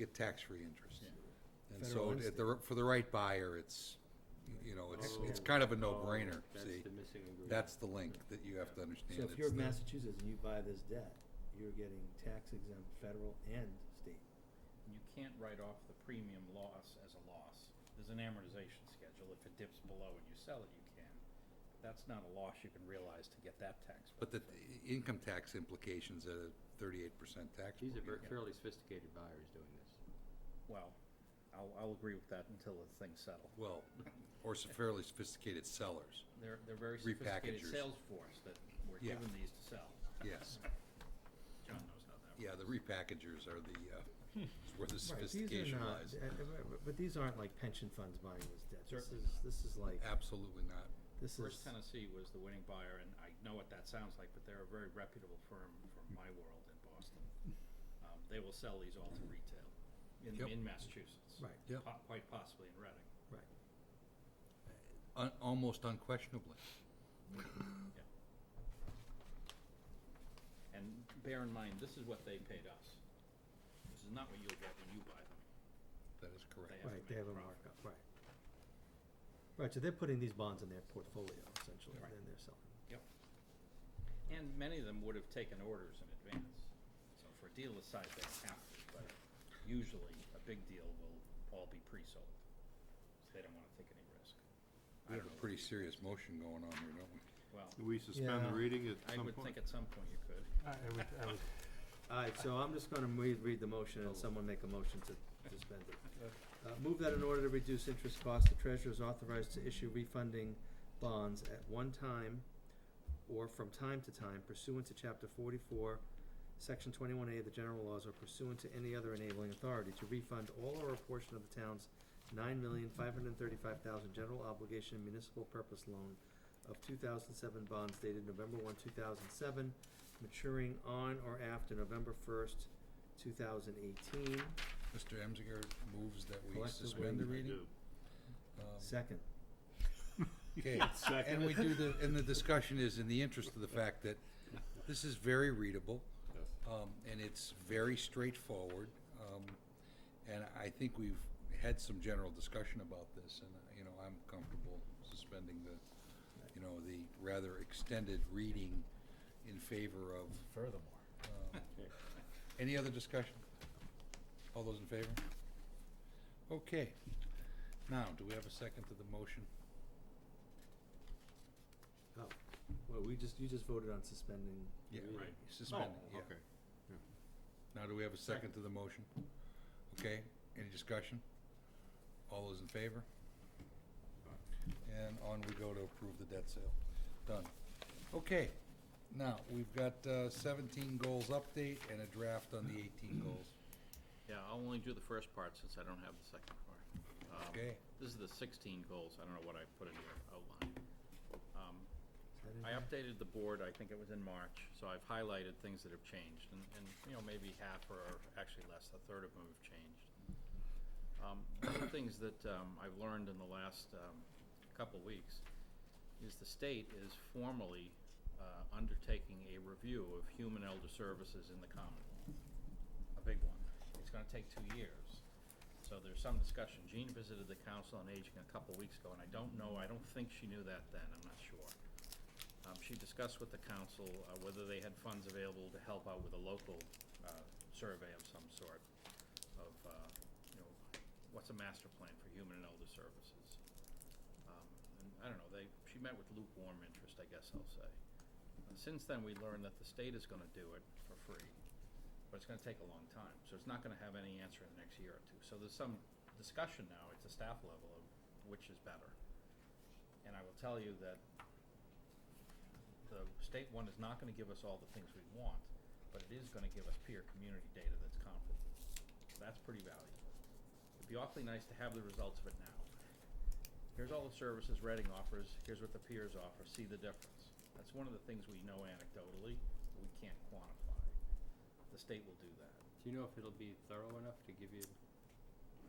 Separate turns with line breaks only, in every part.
get tax-free interest. And
Federal
so
instant. Oh.
at the, for the right buyer, it's, you know, Oh, it's, it's kind of a no-brainer,
Oh. That's
see?
the missing ingredient.
That's the link that you have to understand.
So if
It's
you're
the-
Massachusetts and you buy this debt, you're getting tax exempt federal and state.
and you can't write off the premium loss as a loss. There's an amortization schedule. If it dips below and you sell it, you can. But That's not a loss you can realize to get that tax.
But the
benefit.
income tax implications at a thirty-eight percent tax.
These are
rate.
ver- fairly sophisticated buyers doing this.
Well, I'll, I'll agree with that until the things settle.
Well, or some fairly sophisticated sellers,
They're, they're very sophisticated
Repackagers.
sales force that were
Yeah.
given these to sell.
yes.
John knows how that works.
Yeah, the repackagers are the, uh, is where the
Right, these
sophistication
are not,
lies.
uh, uh, but- but these aren't like pension funds buying this debt. This
Certainly
is, this is like,
Absolutely not.
this is,
First Tennessee was the winning buyer, and I know what that sounds like, but they're a very reputable firm from my world in Boston. Um, they will sell these all to retail in,
Yep.
in Massachusetts.
Right.
Yep.
Po- Quite possibly in Reading.
right.
Un- almost unquestionably.
And bear in mind, this is what they paid us. This is not what you'll get when you buy them.
That is correct.
They have to make
Right, they have a
profit.
markup, right. Right, so they're putting these bonds in their portfolio essentially, and
Right.
then they're selling.
Yep. And many of them would have taken orders in advance. So for a deal this size, they don't have to, but usually a big deal will all be pre-sold. So they don't wanna take any risk.
We have a pretty serious motion going on here, don't we?
Well,
Do we suspend
Yeah.
the reading at
I
some
would
point?
think at some point you could.
I would, I would.
All right, so I'm just gonna read, read the motion and someone make a motion to suspend it. Uh, move that in order to reduce interest costs, the treasurer is authorized to issue refunding bonds at one time or from time to time pursuant to chapter forty-four, section twenty-one A of the general laws or pursuant to any other enabling authority to refund all or a portion of the town's nine million five hundred and thirty-five thousand general obligation municipal purpose loan of two thousand seven bonds dated November one, two thousand seven, maturing on or after November first, two thousand eighteen.
Mr. Emziger moves that we
Collectively,
suspend the
I
reading. Um,
Second.
Okay, and we do the, and the discussion is in the interest of the fact that this is very readable, um, and it's very straightforward. Um, and I think we've had some general discussion about this, and, you know, I'm comfortable suspending the, you know, the rather extended reading in favor of,
Furthermore.
um, any other discussion? All those in favor? Okay. Now, do we have a second to the motion?
Oh, well, we just, you just voted on suspending.
Yeah,
Really?
right, suspending,
Oh,
yeah.
okay.
Now, do we have a second to the motion? Okay, any discussion? All those in favor? And on we go to approve the debt sale. Done. Okay, now, we've got uh, seventeen goals update and a draft on the eighteen goals.
Yeah, I'll only do the first part since I don't have the second part. Um,
Okay.
This is the sixteen goals. I don't know what I put in your outline. Um,
Is that in
I
there?
updated the board, I think it was in March, so I've highlighted things that have changed, and, and, you know, maybe half or actually less, a third of them have changed. Um, one of the things that, um, I've learned in the last, um, couple weeks is the state is formally, uh, undertaking a review of human elder services in the Commonwealth. A big one. It's gonna take two years. So there's some discussion. Jean visited the Council on Aging a couple weeks ago, and I don't know, I don't think she knew that then, I'm not sure. Um, she discussed with the council, uh, whether they had funds available to help out with a local, uh, survey of some sort of, uh, you know, what's a master plan for human and elder services? Um, and I don't know, they, she met with lukewarm interest, I guess I'll say. Uh, Since then, we learned that the state is gonna do it for free, but it's gonna take a long time, so it's not gonna have any answer in the next year or two. So there's some discussion now at the staff level of which is better. And I will tell you that the state one is not gonna give us all the things we want, but it is gonna give us peer community data that's comparable. That's pretty valuable. It'd be awfully nice to have the results of it now. Here's all the services Reading offers, here's what the peers offer, see the difference. That's one of the things we know anecdotally, but we can't quantify. The state will do that.
Do you know if it'll be thorough enough to give you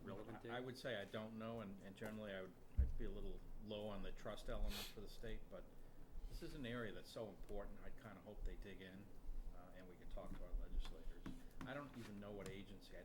relevant
I- I
data?
would say I don't know, and, and generally I would, I'd be a little low on the trust element for the state, but this is an area that's so important, I'd kinda hope they dig in, uh, and we can talk to our legislators. I don't even know what agency, I